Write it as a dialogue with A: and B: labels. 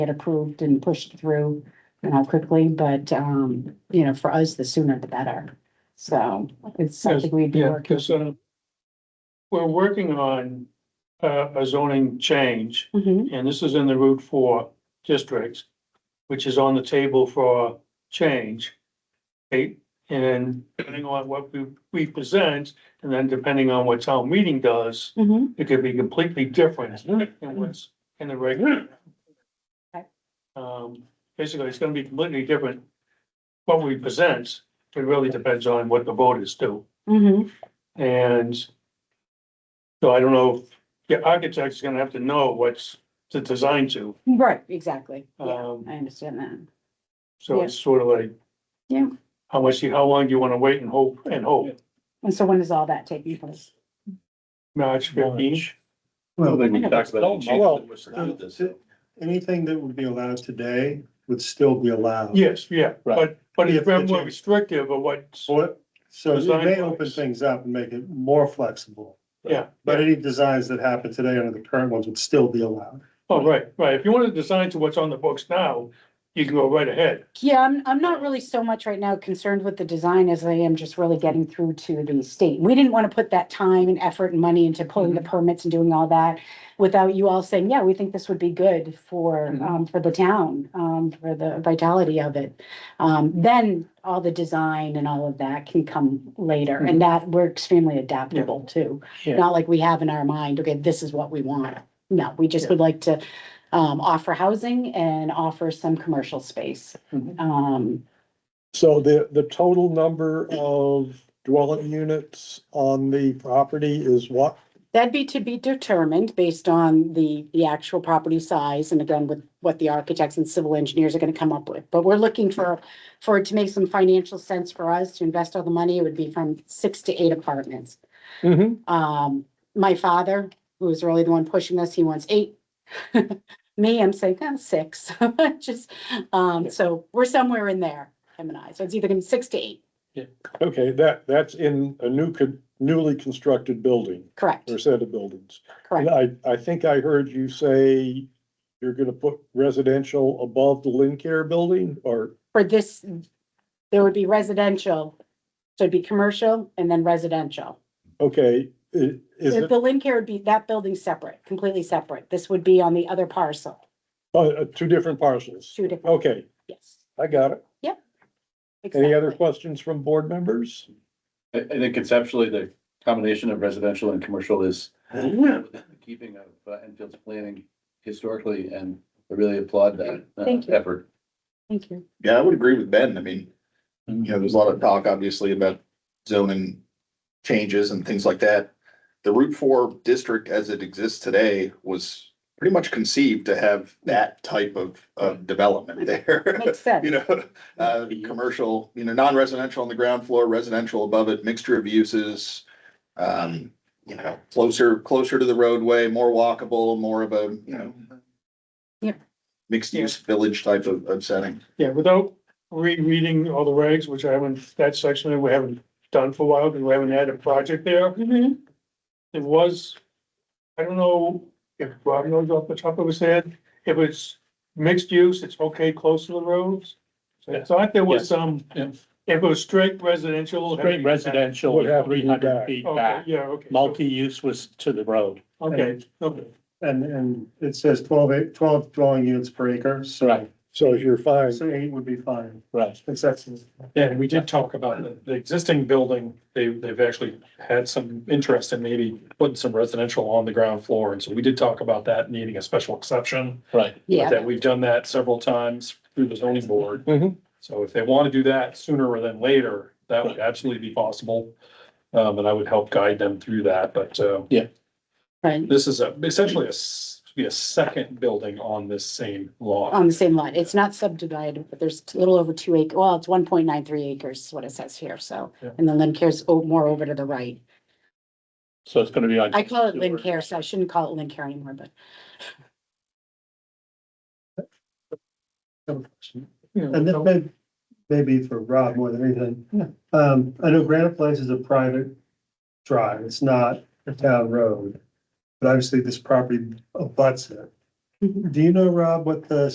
A: get approved and pushed through, you know, quickly, but, um, you know, for us, the sooner the better. So it's something we'd be
B: Yeah,
A: working.
B: because, uh, we're working on, uh, a zoning change,
A: Mhm,
B: and this is in the Route Four districts, which is on the table for change. Right? and depending on what we, we present, and then depending on what town meeting does,
A: mhm.
B: it could be completely different than what's in the regular.
A: Okay.
B: Um, basically, it's gonna be completely different. What we present, it really depends on what the voters do.
A: mhm.
B: And so I don't know, if the architect's gonna have to know what's to design to.
A: Right, exactly. Yeah,
B: Um,
A: I understand that.
B: so it's sort of like.
A: Yeah.
B: How much, you- how long do you wanna wait and hope and hope?
A: And so when is all that taking place?
B: March fifteenth?
C: Well,
D: Well, we talked about it,
C: well,
D: we started this.
C: anything that would be allowed today would still be allowed.
B: Yes, yeah, but,
D: Right.
B: but
C: Yeah,
B: it's
C: it's the
B: been more
C: change.
B: restrictive of what's,
C: So so you may open
B: Design-wise.
C: things up and make it more flexible,
B: yeah.
C: but any designs that happen today under the current ones would still be allowed.
B: Oh, right, right. If you wanna design to what's on the books now, you can go right ahead.
A: Yeah, I'm, I'm not really so much right now concerned with the design as I am just really getting through to the state. We didn't want to put that time and effort and money into pulling the permits and doing all that without you all saying, yeah, we think this would be good for,
B: Mhm.
A: um, for the town, um, for the vitality of it. Um, then all the design and all of that can come later and that we're extremely adaptable too.
B: Yeah.
A: Not like we have in our mind, okay, this is what we want. No, we just would like to, um, offer housing and offer some commercial space.
B: Mhm.
A: Um,
E: So the, the total number of dwelling units on the property is what?
A: that'd be to be determined based on the, the actual property size and again with what the architects and civil engineers are gonna come up with. But we're looking for, for it to make some financial sense for us to invest all the money, it would be from six to eight apartments.
C: Mm-hmm.
A: Um, my father, who was really the one pushing this, he wants eight. Me, I'm saying, oh, six, just, um, so we're somewhere in there, him and I, so it's either gonna be six to eight,
E: Okay, that, that's in a new, con- newly constructed building
A: correct,
E: or set of buildings.
A: correct.
E: And I, I think I heard you say you're gonna put residential above the Lynn Care building or,
A: for this, there would be residential, so it'd be commercial and then residential.
E: okay, i- is it,
A: The Lynn Care would be, that building's separate, completely separate. This would be on the other parcel,
E: uh, uh, two different parcels?
A: two different,
E: Okay,
A: yes.
E: I got it. Any other
A: exactly.
E: questions from board members?
D: I, I think conceptually, the combination of residential and commercial is within the keeping of uh, Enfield's planning historically, and I really applaud that uh,
A: Thank you.
D: effort.
A: Thank you.
F: Yeah, I would agree with Ben. I mean, you know, there's a lot of talk, obviously, about zoning changes and things like that. The Route Four district as it exists today was pretty much conceived to have that type of, of development there.
A: Makes sense.
F: You know, uh, commercial, you know, non-residential on the ground floor, residential above it, mixture of uses. Um, you know, closer, closer to the roadway, more walkable, more of a, you know.
A: Yep.
F: Mixed use village type of, of setting.
B: Yeah, without rereading all the regs, which I haven't, that section we haven't done for a while, because we haven't had a project there.
A: Mhm.
B: It was, I don't know if Rob knows off the top of his head, if it's mixed use, it's okay close to the roads. So I thought there was some,
G: Yeah.
B: if it was straight residential.
G: Straight residential,
E: Would have to be
G: three hundred
E: back.
G: feet
B: Okay,
G: back.
B: yeah, okay.
G: Multi-use was to the road.
B: Okay, okay.
C: And, and it says 12 eight- 12 dwelling units per acre, so,
G: Right.
E: So you're fine.
C: so eight would be fine,
G: Right.
C: It's excellent.
H: Yeah, and we did talk about Uh, the, the existing building, they, they've actually had some interest in maybe putting some residential on the ground floor, and so we did talk about that needing a special exception.
G: Right.
H: but
A: Yeah,
H: That we've done that several times through the zoning board.
E: Mhm.
H: So if they want to do that sooner than later, that would absolutely be possible. Um, and I would help guide them through that, but, uh,
A: right,
H: this is a, essentially a, s- be a second building on this same lot.
A: on the same lot. It's not subdivided, but there's a little over two acre, well, it's one point nine three acres is what it says here, so.
H: Yeah.
A: And then Lynn Care's o- more over to the right.
G: So it's gonna be on.
A: I call it Lynn Care, so I shouldn't call it Lynn Care anymore, but
C: And that may, maybe for Rob more than anything. Um, I know Granite Place is a private drive, it's not a town road. But obviously this property abuts it.
A: Mhm.
C: Do you know, Rob, what the